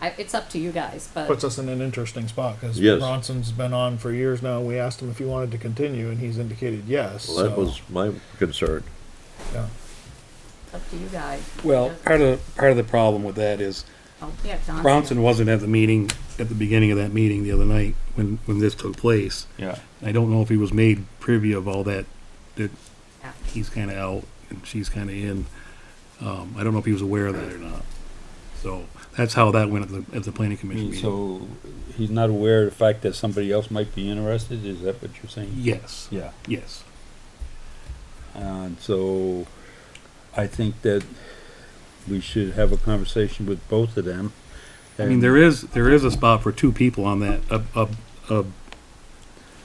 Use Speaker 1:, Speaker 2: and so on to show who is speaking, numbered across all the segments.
Speaker 1: I, it's up to you guys, but
Speaker 2: Puts us in an interesting spot because
Speaker 3: Yes.
Speaker 2: Bronson's been on for years now. We asked him if he wanted to continue, and he's indicated yes.
Speaker 3: Well, that
Speaker 2: so,
Speaker 3: was my concern.
Speaker 2: yeah.
Speaker 1: up to you guys.
Speaker 4: Well, part of, part of the problem with that is
Speaker 1: Oh, yeah, Johnson.
Speaker 4: Bronson wasn't at the meeting, at the beginning of that meeting the other night when, when this took place.
Speaker 5: Yeah.
Speaker 4: I don't know if he was made privy of all that, that
Speaker 1: Yeah.
Speaker 4: he's kinda out and she's kinda in. Um, I don't know if he was aware of that or not. So that's how that went at the, at the planning commission meeting.
Speaker 5: Mm, So he's not aware of the fact that somebody else might be interested, is that what you're saying?
Speaker 4: Yes,
Speaker 5: Yeah,
Speaker 4: yes.
Speaker 5: and so I think that we should have a conversation with both of them.
Speaker 4: I mean, there is, there is a spot for two people on that, a, a, a,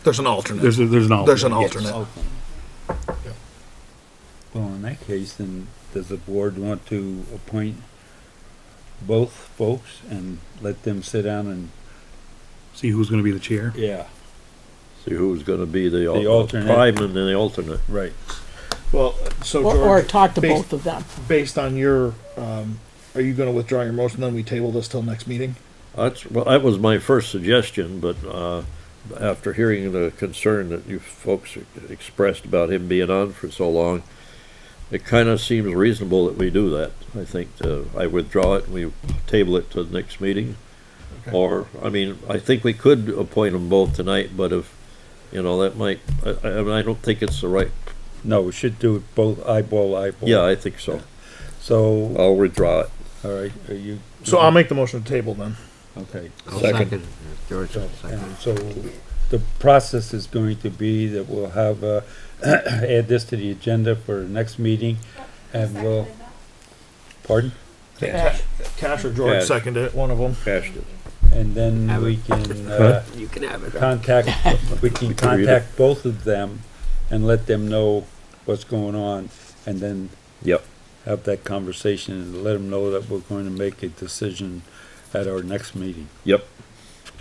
Speaker 2: There's an alternate.
Speaker 4: there's, a- there's an alternate.
Speaker 2: There's an
Speaker 4: yes.
Speaker 2: alternate.
Speaker 5: Okay. Well, in that case, then does the board want to appoint both folks and let them sit down and,
Speaker 4: See who's gonna be the chair.
Speaker 5: yeah,
Speaker 3: See who's gonna be the, al-
Speaker 5: The alternate.
Speaker 3: prime and then the alternate.
Speaker 5: right.
Speaker 2: well, so
Speaker 6: Or, or
Speaker 2: George,
Speaker 6: talk to
Speaker 2: based-
Speaker 6: both of them.
Speaker 2: based on your, um, are you going to withdraw your motion? Then we table this till next meeting.
Speaker 3: That's, well, that was my first suggestion, but, uh, after hearing the concern that you folks expressed about him being on for so long, it kinda seems reasonable that we do that. I think, uh, I withdraw it, and we table it to the next meeting.
Speaker 2: Okay.
Speaker 3: Or, I mean, I think we could appoint them both tonight, but if, you know, that might, I, I, I don't think it's the right,
Speaker 5: No, we should do it both eyeball, eyeball.
Speaker 3: yeah, I think so.
Speaker 5: So,
Speaker 3: I'll withdraw it.
Speaker 5: all right, are you?
Speaker 2: So
Speaker 3: Mm-hmm.
Speaker 2: I'll make the motion to table then.
Speaker 5: Okay.
Speaker 7: I'll
Speaker 3: Second.
Speaker 7: second. George,
Speaker 5: So,
Speaker 7: second.
Speaker 5: and so the process is going to be that we'll have, uh, add this to the agenda for the next meeting and we'll, pardon?
Speaker 2: Cash, Cash or George
Speaker 3: Cash.
Speaker 2: seconded it. One of them.
Speaker 3: Cashed it.
Speaker 5: And then we can, uh,
Speaker 7: You can have it.
Speaker 5: contact, we can
Speaker 3: can read it.
Speaker 5: contact both of them and let them know what's going on and then
Speaker 3: Yep.
Speaker 5: have that conversation and let them know that we're going to make a decision at our next meeting.
Speaker 3: Yep,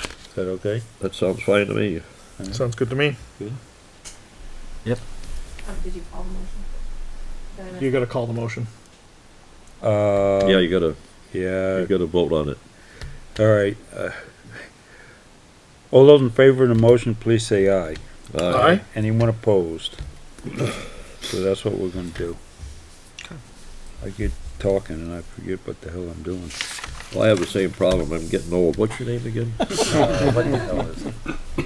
Speaker 5: Is that okay?
Speaker 3: that sounds fine to me.
Speaker 2: Sounds good to me.
Speaker 1: Oh, Did you call the motion?
Speaker 2: You got to call the motion.
Speaker 5: Uh,
Speaker 3: Yeah, you gotta,
Speaker 5: yeah,
Speaker 3: you gotta vote on it.
Speaker 5: all right. uh, All those in favor of the motion, please say aye.
Speaker 2: All right.
Speaker 5: Anyone opposed? So that's what we're gonna do. I get talking and I forget what the hell I'm doing.
Speaker 3: Well, I have the same problem. I'm getting old. What's your name again?
Speaker 5: Uh, What the hell is it?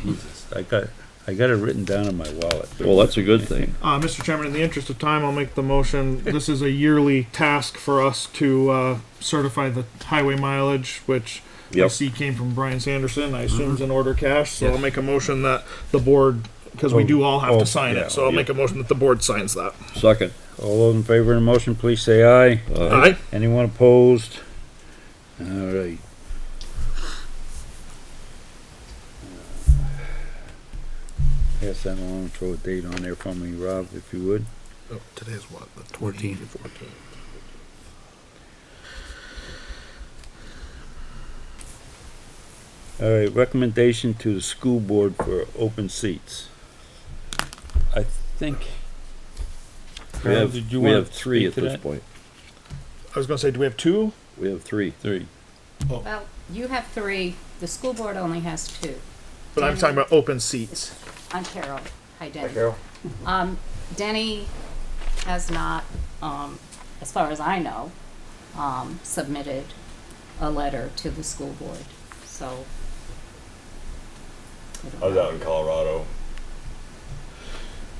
Speaker 5: Jesus, I got, I got it written down in my wallet.
Speaker 3: Well, that's a good thing.
Speaker 2: Uh, Mr. Chairman, in the interest of time, I'll make the motion. This is a yearly task for us to uh, certify the highway mileage, which I
Speaker 3: Yep.
Speaker 2: see came from Brian Sanderson. I assume is an order cash. So I'll make a motion that the board, because we do all have
Speaker 5: Oh,
Speaker 2: to sign
Speaker 5: yeah,
Speaker 2: it. So I'll
Speaker 3: yeah.
Speaker 2: make a motion that the board signs that.
Speaker 3: Second.
Speaker 5: All those in favor of the motion, please say aye.
Speaker 3: Uh,
Speaker 2: All right.
Speaker 5: Anyone opposed? All right. Uh, Pass that along, throw a date on there for me, Rob, if you would.
Speaker 2: Today's Oh, what? The
Speaker 4: 14.
Speaker 5: All right, recommendation to the school board for open seats. I think.
Speaker 3: We
Speaker 5: Carl,
Speaker 3: have,
Speaker 5: did you
Speaker 3: we
Speaker 5: want
Speaker 3: have
Speaker 5: to
Speaker 3: three
Speaker 5: speak
Speaker 3: at
Speaker 5: to
Speaker 3: this
Speaker 5: that?
Speaker 3: point.
Speaker 2: I was going to say, do we have two?
Speaker 3: We have three.
Speaker 5: Three.
Speaker 1: Well, you have three, the school board only has two,
Speaker 2: But I'm talking about open seats.
Speaker 1: on Carol, hi Denny. Um, Denny has not, um, as far as I know, um, submitted a letter to the school board, so. I don't
Speaker 8: I was
Speaker 1: know.
Speaker 8: out in Colorado.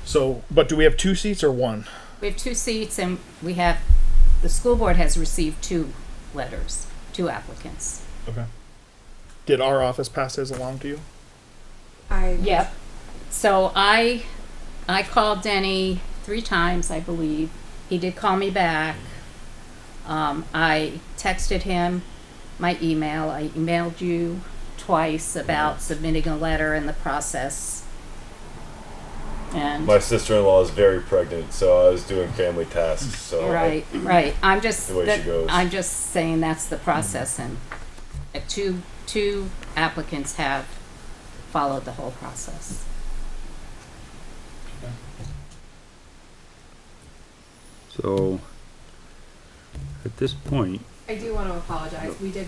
Speaker 2: So, but do we have two seats or one?
Speaker 1: We have two seats and we have, the school board has received two letters, two applicants.
Speaker 2: Okay. Did our office pass his along to you?
Speaker 9: I
Speaker 1: Yep. So I, I called Denny three times, I believe. He did call me back. Um, I texted him my email. I emailed you twice about submitting a letter and the process. And,
Speaker 8: My sister-in-law is very pregnant, so I was doing family tasks. So I-
Speaker 1: right, right. I'm just,
Speaker 8: The way she
Speaker 1: that-
Speaker 8: goes.
Speaker 1: I'm just saying that's the process and uh, two, two applicants have followed the whole process.
Speaker 5: So, at this point,
Speaker 9: I do want to apologize. We did